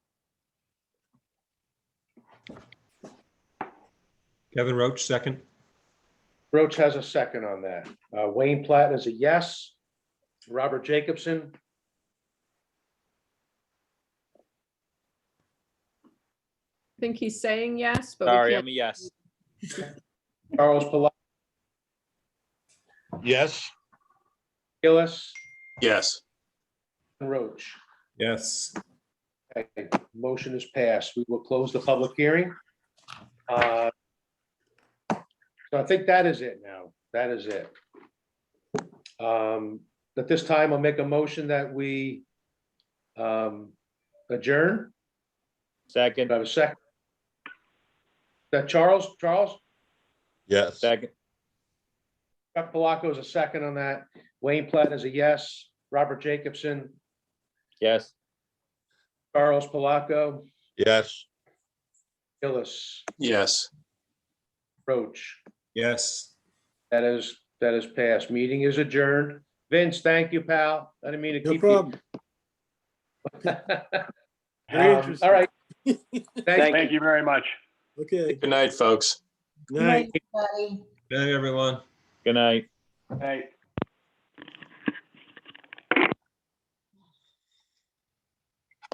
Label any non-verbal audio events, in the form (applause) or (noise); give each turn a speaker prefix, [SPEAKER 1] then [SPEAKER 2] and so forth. [SPEAKER 1] Kevin Roach, second.
[SPEAKER 2] Roach has a second on that. Uh, Wayne Platt is a yes. Robert Jacobson?
[SPEAKER 3] think he's saying yes, but we
[SPEAKER 4] Sorry,
[SPEAKER 3] can't.
[SPEAKER 4] I'm a yes.
[SPEAKER 2] Charles Palak?
[SPEAKER 5] Yes.
[SPEAKER 2] Gillis?
[SPEAKER 5] Yes.
[SPEAKER 2] and Roach?
[SPEAKER 1] Yes.
[SPEAKER 2] Okay, motion is passed. We will close the public hearing. Uh, So I think that is it now. That is it. Um, At this time, I'll make a motion that we um, adjourn. Do I
[SPEAKER 4] Second,
[SPEAKER 2] have a second? That Charles, Charles,
[SPEAKER 5] Yes.
[SPEAKER 4] second,
[SPEAKER 2] Chuck Palaco is a second on that. Wayne Platt is a yes. Robert Jacobson,
[SPEAKER 4] yes.
[SPEAKER 2] Charles Palaco,
[SPEAKER 5] Yes.
[SPEAKER 2] Gillis,
[SPEAKER 5] Yes.
[SPEAKER 2] Roach.
[SPEAKER 1] Yes.
[SPEAKER 2] That is, that is passed. Meeting is adjourned. Vince, thank you, pal. I didn't mean to
[SPEAKER 6] No
[SPEAKER 2] keep you.
[SPEAKER 6] problem.
[SPEAKER 2] (laughs)
[SPEAKER 6] Very
[SPEAKER 2] Um,
[SPEAKER 6] interesting.
[SPEAKER 2] All right. Thank you.
[SPEAKER 7] Thank you very much.
[SPEAKER 6] Okay.
[SPEAKER 5] Good night, folks.
[SPEAKER 6] Night.
[SPEAKER 1] Good night, everyone.
[SPEAKER 4] Good night.
[SPEAKER 7] Good night.